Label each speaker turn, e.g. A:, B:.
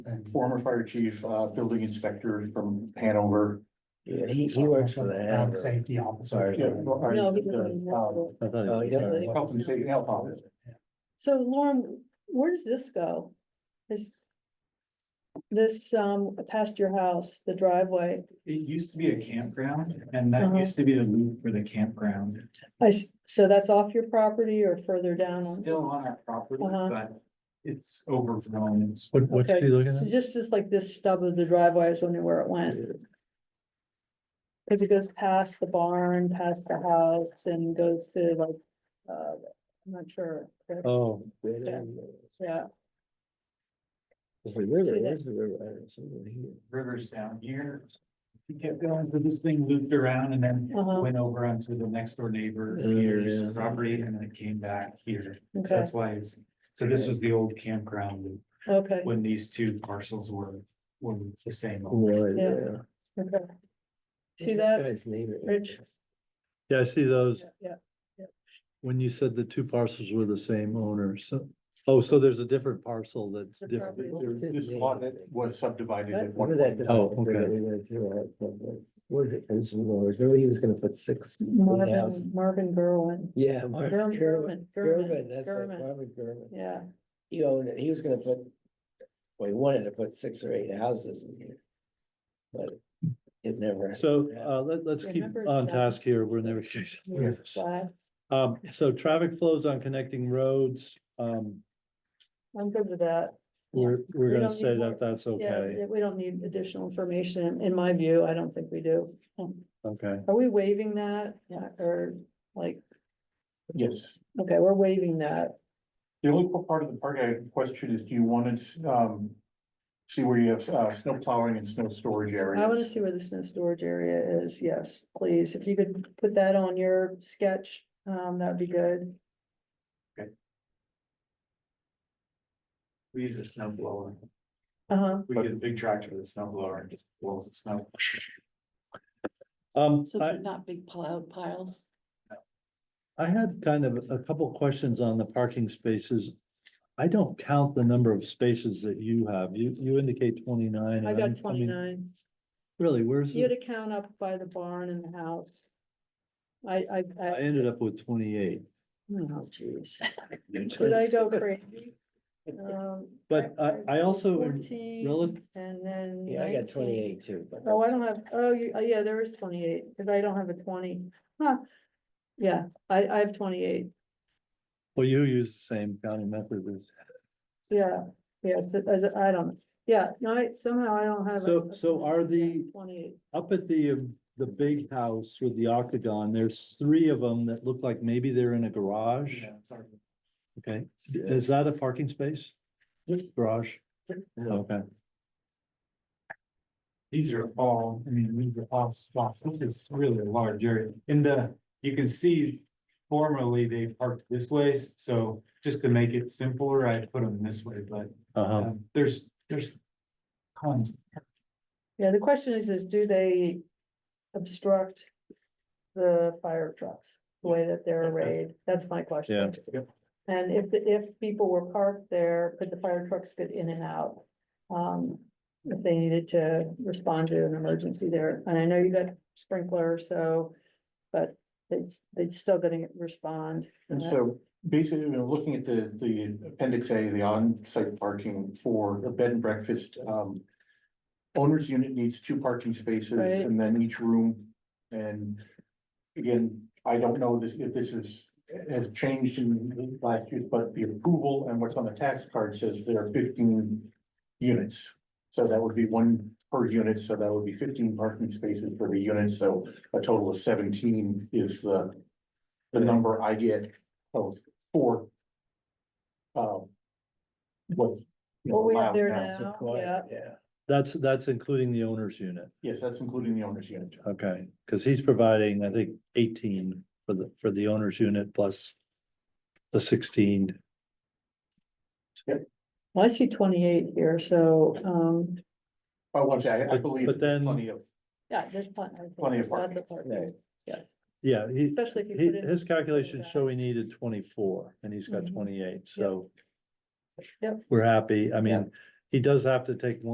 A: former fire chief, uh, building inspector from Hanover.
B: Yeah, he, he works for the
C: Um,
B: Hanover.
C: Safety officer.
B: Sorry.
A: Yeah, well, I-
D: No, he doesn't
A: uh,
D: even
A: uh,
D: know.
B: I thought Oh, he
A: uh,
B: was-
A: yeah, Health and safety, health officer.
D: So Lauren, where does this go? This, this, um, past your house, the driveway,
E: It used to be a campground and that
D: Uh-huh.
E: used to be the loop for the campground.
D: I, s- so that's off your property or further down?
E: It's
D: on-
E: Still on our property,
D: Uh-huh.
E: but it's overgrown. It's-
B: What, what's
D: Okay.
B: he looking
D: So
B: at?
D: just, just like this stub of the driveway, I was wondering where it went. Cause it goes past the barn, past the house and goes to like, uh, I'm not sure.
B: Oh.
D: Yeah. Yeah,
B: It's a river,
D: See that?
B: where's the river? It's over here.
E: Rivers down here. He kept going, so this thing looped around and then
D: Uh-huh.
E: went over onto the next door neighbor
B: Oh,
E: here's
B: yeah.
E: property and then it came back here. So
D: okay,
E: That's why it's, so this was the old campground loop
D: okay,
E: when these two parcels were, were the same.
B: Oh, Right
D: Yeah.
B: there.
D: okay. See that?
B: Guy's neighbor.
D: Rich?
F: Yeah, I see those.
D: Yeah,
F: When you said the two parcels were the same owner, so, oh, so there's a different parcel that's
D: The
F: different.
D: property.
A: There- This lot that was subdivided at one
B: Remember that
A: point.
F: Oh,
B: development that
F: okay.
B: we went through, uh, but what Was it, it was, remember he was gonna put six houses?
D: Marvin, Marvin Gerwin.
B: Yeah. Mark
D: German,
B: Gerwin,
D: German,
B: Gerwin,
D: German,
B: that's right,
D: German,
B: Marvin Gerwin.
D: yeah,
B: He owned it, he was gonna put, well, he wanted to put six or eight houses in here. But it never.
F: So, uh, let, let's keep
D: Remember
F: on
D: that-
F: task here. We're never.
D: yeah, flat.
F: Um, so traffic flows on connecting roads, um,
D: I'm good with that.
F: we're,
D: We
F: we're gonna
D: don't need
F: say
D: more.
F: that that's okay,
D: Yeah, we don't need additional information, in my view, I don't think we do. Um,
F: okay.
D: Are we waiving that, Yeah, or like,
A: Yes.
D: okay, we're waiving that,
A: The only part of the part I had a question is, do you want to, um, see where you have, uh, snow plowing and snow storage areas?
D: I wanna see where the snow storage area is, yes, please, if you could put that on your sketch, um, that'd be good.
E: We use a snow blower.
D: Uh-huh,
E: We get a big tractor with a snow blower and just blows the snow.
F: Um, I,
D: not big plowed piles.
F: I had kind of a couple questions on the parking spaces. I don't count the number of spaces that you have. You, you indicate twenty-nine. and
D: I
F: I'm-
D: got
F: mean,
D: twenty-nine.
F: Really, where's,
D: You had
F: the-
D: a count up by the barn and the house. I, I,
F: I
D: I,
F: ended up with twenty-eight.
D: oh jeez, did I go crazy? Um,
F: But I, I also am
D: Fourteen,
F: rel-
D: and then.
B: Yeah, I got
D: 19.
B: twenty-eight too. but
D: Oh, I don't have, oh, you, oh, yeah, there is twenty-eight, because I don't have a twenty, huh? Yeah, I, I have twenty-eight,
F: Well, you use the same counting method as,
D: yeah, yes, it- as, I don't, yeah, no, I, somehow I don't have. a-
F: So- so are the-
D: Twenty-eight,
F: up at the, um, the big house with the octagon, there's three of them that look like maybe they're in a garage.
E: Yeah, sorry.
F: Okay, is that a parking space? Garage? Okay,
E: These are all, I mean, these are all spots. This is really a large area. In the, you can see formerly they parked this way, so just to make it simpler, I put them this way, but
F: uh-huh.
E: um, there's, there's tons.
D: yeah, the question is, is do they obstruct the fire trucks, the way that they're arrayed, that's my question.
E: Yep.
D: And if, the if people were parked there, could the fire trucks get in and out? Um, if they needed to respond to an emergency there, and I know you got sprinkler, so. But it's, they'd still gonna respond. Uh,
A: And so basically, you know, looking at the, the appendix A, the on-site parking for a bed and breakfast, um. Owner's unit needs two parking spaces
D: Right.
A: and then each room. And again, I don't know this, if this is, has changed in the last year, but the approval and what's on the tax card says there are fifteen units. So that would be one per unit, so that would be fifteen parking spaces for the unit, so a total of seventeen is the. The number I get of four. Um. What's. you know,
D: What we have
A: allowed
D: there
A: now.
D: now, yeah,
B: Quiet, yeah.
F: That's, that's including the owner's unit,
A: Yes, that's including the owner's unit.
F: okay, because he's providing, I think, eighteen for the, for the owner's unit plus the sixteen.
D: well, I see twenty-eight here, so, um,
A: I want to, I- I
F: But-
A: believe.
F: but then-
A: Plenty of,
D: yeah, there's plenty. I think
A: Plenty of
D: there's lots
A: parking.
D: parking,
B: Right.
F: Yeah, he,
D: Especially if you
F: he,
D: put in.
F: his calculations
D: back.
F: show he needed twenty-four and he's got
D: Mhm.
F: twenty-eight, so.
D: Yep.
F: We're happy, I
B: Yeah.
F: mean, he does have to take one.